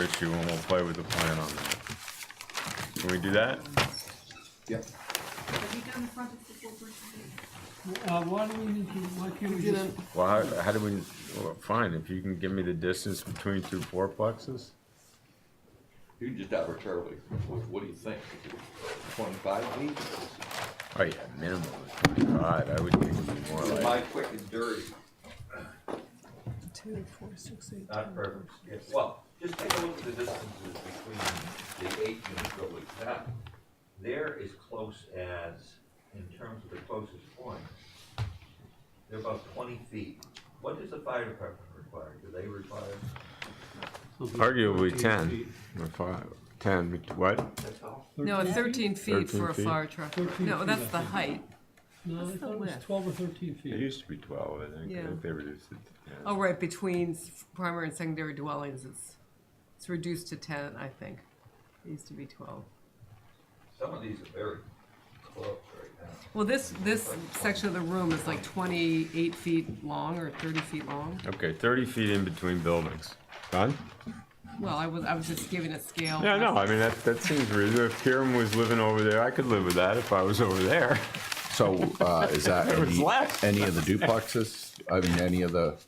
issue and we'll play with the plan on that. Can we do that? Yep. Have you done the front of the full person? Uh, why do we need to, why can't we just, Well, how, how do we, well, fine, if you can give me the distance between two fourplexes? You can just arbitrarily, what, what do you think? Twenty-five feet? Oh yeah, minimum is twenty-five, I would think it would be more My like, quick and dirty. Two, four, six, eight, Not ten. perfect. Well, just take a look at the distances between the eight unit buildings. That, They're as close as, in terms of the closest point, they're about twenty feet. What does the fire department require? Do they require, arguably ten, or five, ten, what? that's all? No, it's thirteen 13 feet for a feet. fire truck. 13 No, feet, I that's the think. height. no, I What's the thought it was width? twelve or thirteen feet. used to be twelve, I think, I Yeah. think they reduced it to ten. Oh, right, between s- primary and secondary dwellings, it's, it's reduced to ten, I think. It used to be twelve. some of these are very close right now. Well, this, this section of the room is like twenty-eight feet long or thirty feet long. Okay, thirty feet in between buildings. Done? Well, I was, I was just giving a scale. Yeah, no, I mean, that, that seems reasonable, if Kieran was living over there, I could live with that if I was over there. So, uh, is that There was any, less. any of the duplexes? I mean, any of the,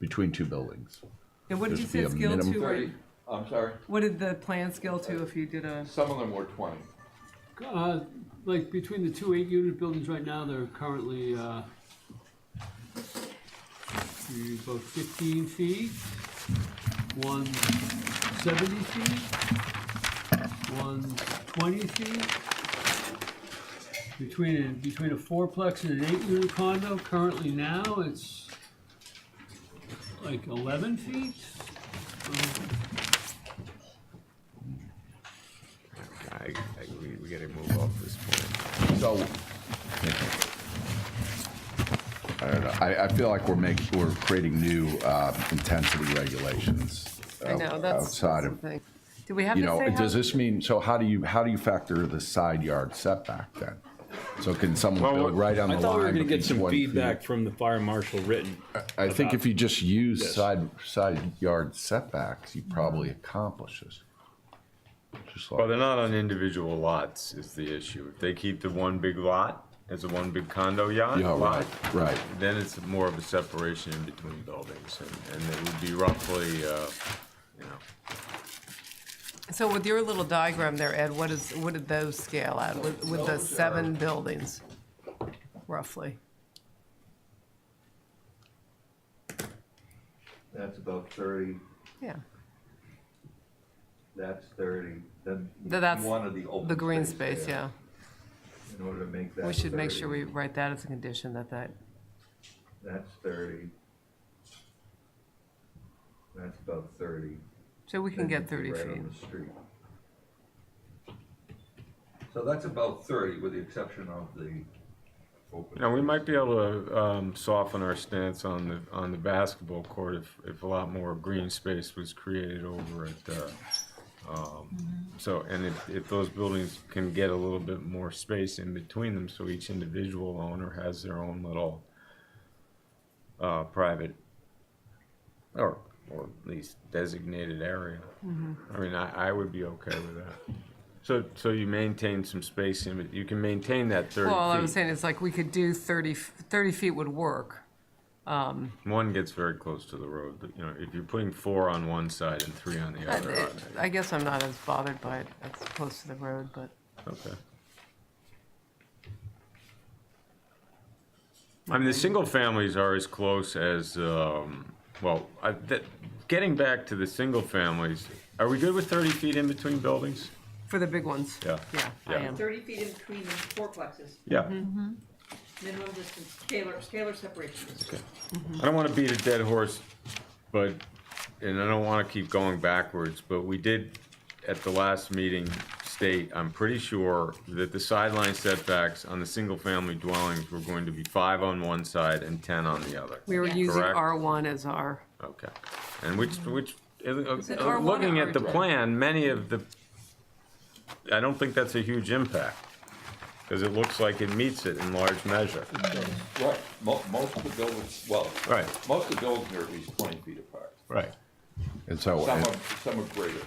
between two buildings? And what did This you would say it's be a scale minimum. to? Thirty, or- I'm sorry, What did the plan scale to if you did a, some of them were twenty. Uh, like between the two eight-unit buildings right now, they're currently, uh, about fifteen feet, one seventy feet, one twenty feet. Between, between a fourplex and an eight-unit condo, currently now, it's like eleven feet. I, I, we, we gotta move off this point. So. I don't know, I, I feel like we're making, we're creating new, uh, intensity regulations. uh, I know, that's. Outside that's of, the thing. Did we have you to know, say how? does this mean, so how do you, how do you factor the side yard setback then? So can someone Well, build what- right on the I line? thought we were going to between get some 20 feet? feedback from the fire marshal written. I think if you just use Yes. side, side yard setbacks, you probably accomplish this. Just Well, like, they're not on individual lots is the issue. If they keep the one big lot as a one big condo yacht yeah, lot, right, right. then it's more of a separation in between buildings, and, and it would be roughly, uh, you know, So with your little diagram there, Ed, what is, what did those scale at with, with the Those are- seven buildings? Roughly. That's about thirty, Yeah. that's thirty, then Th- that's one of the open The green space, there yeah. In order to make that We should make sure 30. we write that as a condition that that, That's thirty. That's about thirty. so we Then can get you'd be thirty right feet. on the street. So that's about thirty with the exception of the open. you know, we might be able to, um, soften our stance on the, on the basketball court if, if a lot more green space was created over at, uh, um, so, and if, if those buildings can get a little bit more space in between them, so each individual owner has their own little, uh, private, or, or at least designated area. I mean, I, I would be okay with that. So, so you maintain some space in, it. you can maintain that thirty Well, all I was feet. saying is like, we could do 30 f- 30 feet would work. One gets very close to the road, but, you know, if you're putting four on one side and three on the I- other, it- I- I guess I'm not as bothered by it as close to the road, but okay. I mean, the single families are as close as, um, well, I, that, getting back to the single families, are we good with thirty feet in between buildings? for the big ones. Yeah. Yeah, I Yeah. am. Thirty feet in between the fourplexes, Yeah. minimum distance, scalar, scalar separation. I don't want to beat a dead horse, but, and I don't want to keep going backwards, but we did at the last meeting state, I'm pretty sure, that the sideline setbacks on the single-family dwellings were going to be five on one side and ten on the other. We were using Correct. R1 as our, Okay, and which, which, uh, it uh, R1 looking or at the R2? plan, many of the, I don't think that's a huge impact, because it looks like it meets it in large measure. Right, mo- most of the buildings, well, Right. most of the buildings are at least twenty feet apart. Right. And so, Some and- are, some are greater.